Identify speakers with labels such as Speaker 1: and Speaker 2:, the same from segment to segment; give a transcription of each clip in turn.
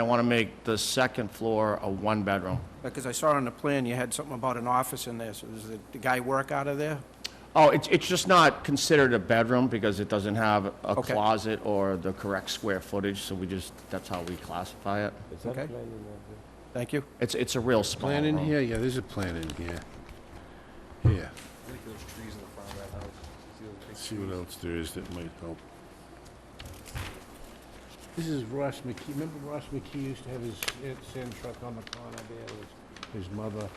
Speaker 1: I want to make the second floor a one-bedroom.
Speaker 2: Because I saw on the plan you had something about an office in there, so does the the guy work out of there?
Speaker 1: Oh, it's, it's just not considered a bedroom because it doesn't have a
Speaker 2: Okay.
Speaker 1: closet or the correct square footage, so we just, that's how we classify it.
Speaker 2: Okay. Thank you.
Speaker 1: It's, it's a real small
Speaker 3: Plan in
Speaker 1: room.
Speaker 3: here, yeah, there's a plan in here. Here,
Speaker 4: I think those trees in the front of that house. see those big
Speaker 3: see what
Speaker 4: trees?
Speaker 3: else there is that might help. This is Ross McKee, remember Ross McKee used to have his eh, sand truck on the corner there with his mother?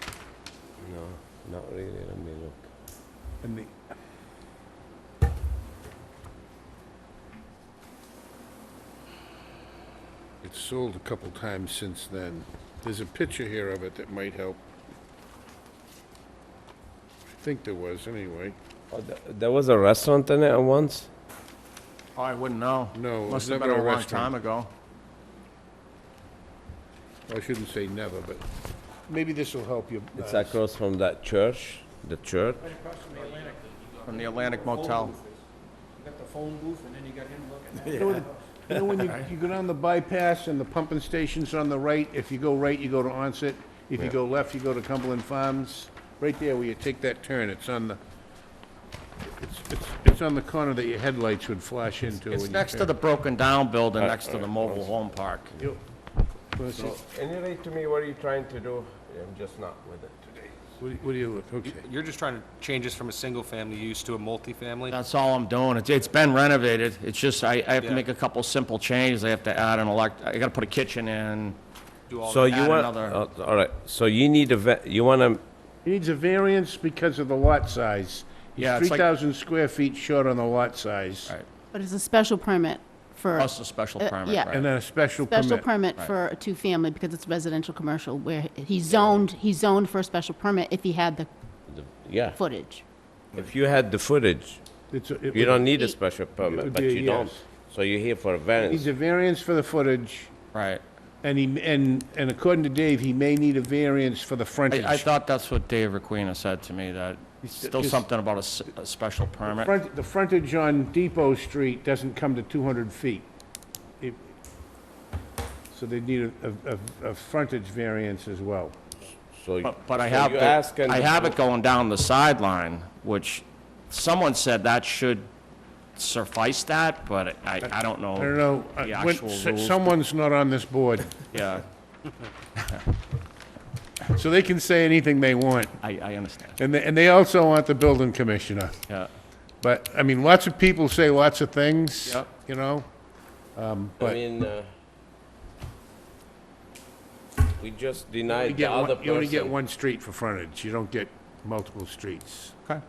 Speaker 5: No, not really, let me look.
Speaker 3: And the, it's sold a couple times since then. There's a picture here of it that might help. I think there was, anyway.
Speaker 5: Oh, th- There was a restaurant in it once?
Speaker 1: Oh, I wouldn't know.
Speaker 3: No, it
Speaker 1: Must
Speaker 3: was
Speaker 1: have been
Speaker 3: never a
Speaker 1: a long
Speaker 3: restaurant.
Speaker 1: time ago.
Speaker 3: I shouldn't say never, but maybe this will help you.
Speaker 5: It's
Speaker 3: uh,
Speaker 5: across from that church, the church.
Speaker 1: From the Atlantic Motel.
Speaker 4: You got the phone booth and then you got him looking at it.
Speaker 3: You know, the- you know when you, you go down the bypass and the pumping station's on the right, if you go right, you go to Onset. If you go left, you go to Cumberland Farms. Right there where you take that turn, it's on the, it's, it's, it's on the corner that your headlights would flash into.
Speaker 1: It's next to the broken-down building, next to the mobile home park.
Speaker 3: What
Speaker 5: Anyway, to me, what are you trying to do? I'm just not with it today.
Speaker 3: do you- what do you look, okay.
Speaker 4: You're just trying to change this from a single-family use to a multifamily?
Speaker 1: That's all I'm doing. It's, it's been renovated. It's just, I, I have to
Speaker 4: Yeah.
Speaker 1: make a couple simple changes. I have to add an elect, I gotta put a kitchen in.
Speaker 4: Do all
Speaker 5: So
Speaker 4: that.
Speaker 5: you
Speaker 1: add
Speaker 5: want,
Speaker 1: another-
Speaker 5: oh, all right, so you need a, va- you want to,
Speaker 3: It needs a variance because of the lot size.
Speaker 1: Yeah, it's
Speaker 3: Three
Speaker 1: like-
Speaker 3: thousand square feet short on the lot size.
Speaker 1: Right.
Speaker 6: But it's a special permit for,
Speaker 1: Plus a special
Speaker 6: Uh,
Speaker 1: permit,
Speaker 6: yeah.
Speaker 1: right?
Speaker 3: And then a special permit.
Speaker 6: special permit for a two-family because it's residential commercial where he's zoned, he's zoned for a special permit if he had the
Speaker 5: yeah,
Speaker 6: footage.
Speaker 5: if you had the footage,
Speaker 3: It's a- it
Speaker 5: you
Speaker 3: would-
Speaker 5: don't need a
Speaker 6: It-
Speaker 5: special
Speaker 3: would
Speaker 5: permit, but
Speaker 3: be a
Speaker 5: you don't.
Speaker 3: yes.
Speaker 5: So you're here for a
Speaker 3: Needs
Speaker 5: variance.
Speaker 3: a variance for the footage.
Speaker 1: Right.
Speaker 3: And he, and, and according to Dave, he may need a variance for the frontage.
Speaker 1: I, I thought that's what Dave Requena said to me, that still
Speaker 3: just-
Speaker 1: something about a s- a, special permit.
Speaker 3: Front, the frontage on Depot Street doesn't come to two hundred feet. It- So they need a, a, a, a frontage variance as well.
Speaker 5: So
Speaker 3: Oh,
Speaker 5: you-
Speaker 1: But, but I
Speaker 5: so
Speaker 1: have,
Speaker 5: you
Speaker 1: the-
Speaker 5: ask and-
Speaker 1: I have it going down the sideline, which someone said that should suffice that, but I, I don't know.
Speaker 3: I don't know, uh,
Speaker 1: The
Speaker 3: when-
Speaker 1: actual
Speaker 3: s-
Speaker 1: rules.
Speaker 3: someone's not on this board,
Speaker 1: Yeah,
Speaker 3: so they can say anything they want.
Speaker 1: I, I understand,
Speaker 3: And they, and they also want the building commissioner.
Speaker 1: yeah.
Speaker 3: But, I mean, lots of people say lots of things,
Speaker 1: Yep.
Speaker 3: you know?
Speaker 5: I
Speaker 3: But-
Speaker 5: mean, uh, we just
Speaker 3: You
Speaker 5: denied the
Speaker 3: get
Speaker 5: other
Speaker 3: one- you only get
Speaker 5: person.
Speaker 3: one street for frontage, you don't get multiple streets.
Speaker 1: Okay.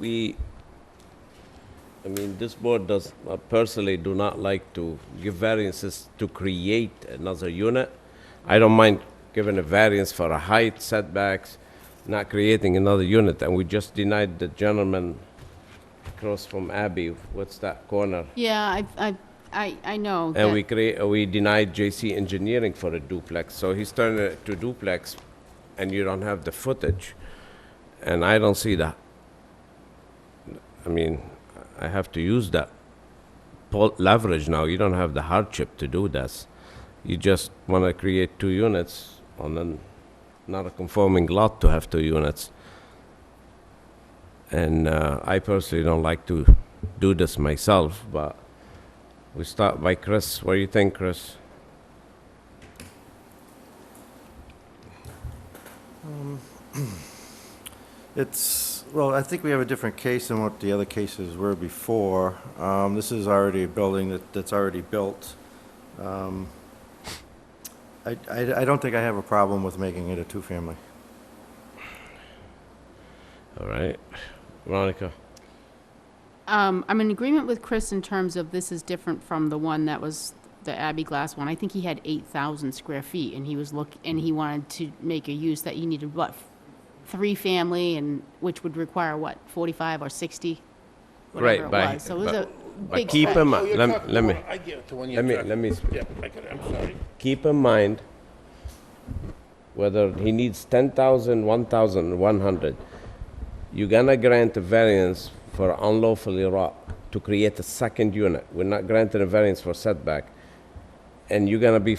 Speaker 5: We, I mean, this board does, uh, personally do not like to give variances to create another unit. I don't mind giving a variance for a height setbacks, not creating another unit, and we just denied the gentleman across from Abbey, what's that corner?
Speaker 6: Yeah, I, I, I, I know
Speaker 5: And we
Speaker 6: that,
Speaker 5: create, uh, we denied JC Engineering for a duplex, so he's turning it to duplex, and you don't have the footage. And I don't see that. I mean, I have to use that pol- leverage now, you don't have the hardship to do this. You just wanna create two units on an, not a conforming lot to have two units. And, uh, I personally don't like to do this myself, but we start by Chris. What do you think, Chris?
Speaker 7: It's, well, I think we have a different case than what the other cases were before. Um, This is already a building that, that's already built. Um, I, I I don't think I have a problem with making it a two-family.
Speaker 5: All right. Veronica.
Speaker 6: um, I'm in agreement with Chris in terms of this is different from the one that was the Abbey Glass one. I think he had eight thousand square feet and he was look, and he wanted to make a use that you needed, what, three family and, which would require what, forty-five or sixty? Whatever
Speaker 5: Right,
Speaker 6: it
Speaker 5: by-
Speaker 6: was. So it was a
Speaker 5: by
Speaker 6: big
Speaker 5: keep
Speaker 6: stretch.
Speaker 5: him- Oh, you're Lem- talking let me- about-
Speaker 3: I get it, the one
Speaker 5: Let me let me sp- keep in mind whether he needs 10,000, 1,000, 100. You're gonna grant a variance for unlawfully wrought to create a second unit. We're not granting a variance for setback, and you're gonna be